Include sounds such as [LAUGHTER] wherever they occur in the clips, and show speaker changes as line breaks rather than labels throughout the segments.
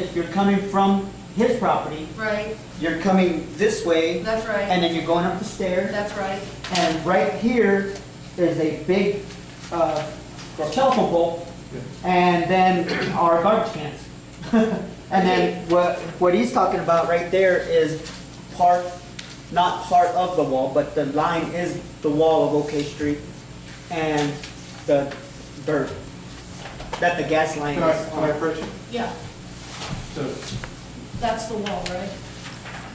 if you're coming from his property,
Right,
you're coming this way,
that's
and
right,
then you're going up the stairs,
that's right,
and right here is a big, uh, telephone pole, and then our garbage cans. [LAUGHS] And then what, what he's talking about right there is part, not part of the wall, but the line is the wall of OK Street and the dirt that the gas line
Can I,
is
can
on.
I approach it?
yeah,
So,
that's the wall, right?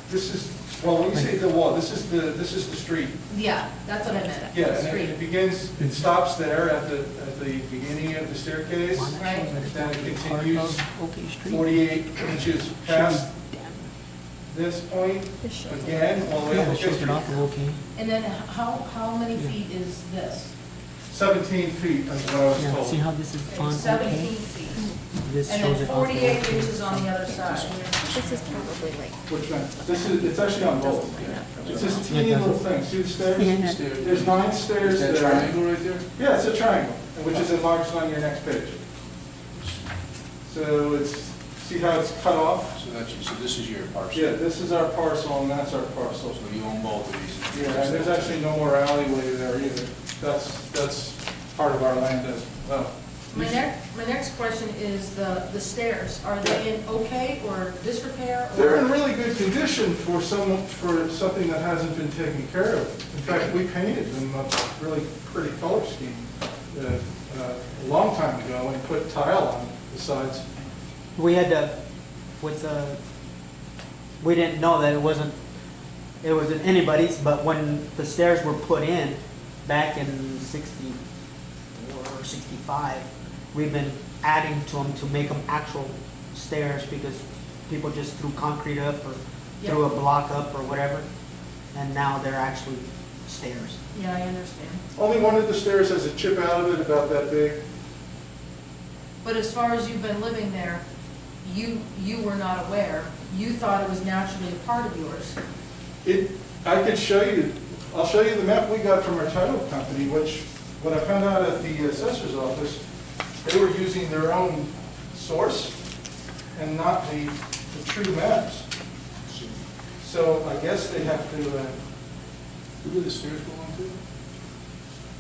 this is, well, when you say the wall, this is the, this is the street.
Yeah, that's what I meant.
Yeah, and
Street,
it- it begins, it stops there at the, at the beginning of the staircase,
Right.
then it continues forty-eight inches past this point, again, all the way
Yeah,
up
it
to
shows it off
Fifth
of okay.
And then how, how many feet is this?
Seventeen feet is what I was
Yeah, see
told.
how this is on
Seventeen
okay?
feet,
This
and
shows
then
it off of
forty-eight
okay.
inches on the other side.
This is probably like,
Which one? This is, it's actually on both.
line up.
It's this teeny little thing, see the stairs?
Yeah,
There's nine stairs
Is
there.
that triangle right there?
Yeah, it's a triangle, which is enlarged on your next page. So it's, see how it's cut off?
So that's, so this is your parcel? Oh,
Yeah, this is our parcel and that's our parcel.
So you own both of these?
Yeah, and there's actually no more alleyway there either. That's, that's part of our land as well.
My next, my next question is the, the stairs, are they in okay or disrepair? or-
They're in really good condition for some, for something that hasn't been taken care of. In fact, we painted them a really pretty color scheme uh, uh, a long time ago and put tile on the sides.
We had to, with, uh, we didn't know that it wasn't, it wasn't anybody's, but when the stairs were put in back in sixty-four or sixty-five, we've been adding to them to make them actual stairs because people just threw concrete up or threw a block up or whatever, and now they're actually stairs.
Yeah, I understand.
Only one of the stairs has a chip out of it about that big.
But as far as you've been living there, you, you were not aware, you thought it was naturally a part of yours.
It, I could show you, I'll show you the map we got from our title company, which, when I found out at the assessor's office, they were using their own source and not the, the true maps. So I guess they have to, uh,
Who do the stairs belong to?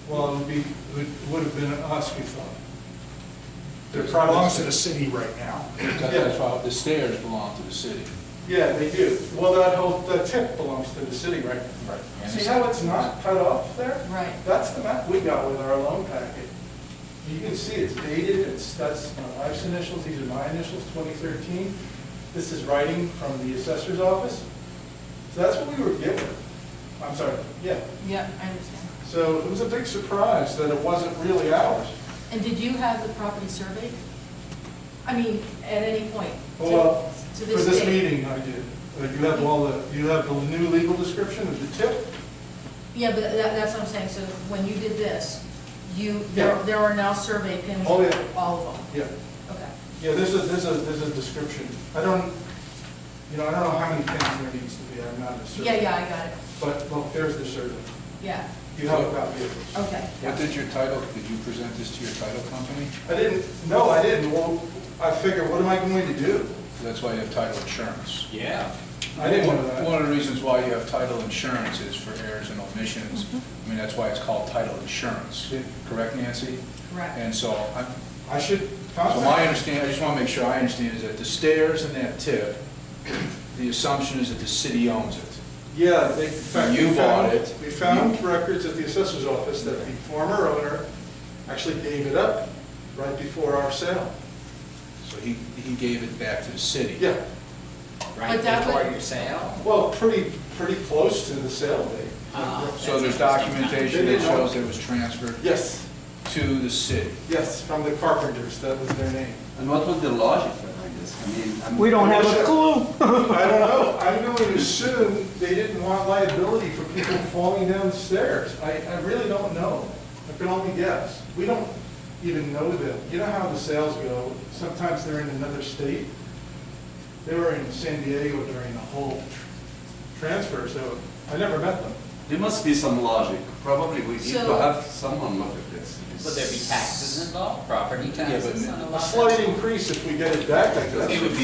well, it would be, it would have been us, we thought. They're
It
private-
belongs to the city right now.
That's why The stairs belong to the city.
Yeah, they do. Well, that whole, that tip belongs to the city, right?
Right.
See how it's not cut off there?
Right.
That's the map we got with our loan packet. You can see it's dated, it's, that's my wife's initials, these are my initials, 2013. This is writing from the assessor's office. So that's what we were given. I'm sorry, yeah.
Yeah, I understand.
So it was a big surprise that it wasn't really ours.
And did you have the property surveyed? I mean, at any point? to-
Well,
to
for this
date?
meeting, I did. Uh, You have all the, you have the new legal description of the tip?
Yeah, but that, that's what I'm saying, so when you did this, you,
Yeah.
there there are now survey pins
Oh,
for
yeah.
all of them?
Yeah.
Okay.
Yeah, this is, this is, this is description. I don't, you know, I don't know how many things there needs to be, I'm not a survey.
Yeah, yeah, I got it,
But look, there's the survey.
yeah,
You have a copy of it.
okay.
What did your title, did you present this to your title company?
I didn't, no, I didn't. Well, I figured, what am I going to do?
That's why you have title insurance. Yeah.
I didn't know that.
One of the reasons why you have title insurance is for errors and omissions. I mean, that's why it's called title insurance,
Yeah.
correct, Nancy?
Correct.
And so I'm,
I should
So my
contact.
understanding, I just want to make sure I understand, is that the stairs and that tip, the assumption is that the city owns it.
Yeah, they, in fact, we
You
found-
bought it.
We found records at the assessor's office that the former owner actually gave it up right before our sale.
So he, he gave it back to the city.
Yeah,
But that would-
sale?
well, pretty, pretty close to the sale date.
So there's documentation that shows it was transferred
Yes,
to the city.
yes, from the carpenters, that was their name.
And what was the logic behind this? I mean, I'm.
We don't have a clue.
I don't know, I'm going to assume they didn't want liability for people falling down the stairs. I, I really don't know, I can only guess. We don't even know them. You know how the sales go, sometimes they're in another state. They were in San Diego during the whole tr- transfer, so I never met them.
There must be some logic. Probably we need
So-
to have someone look at this.
Would there be taxes involved, property
Yeah, but
taxes on a lot?
A slight increase if we get it back, I guess.
It would be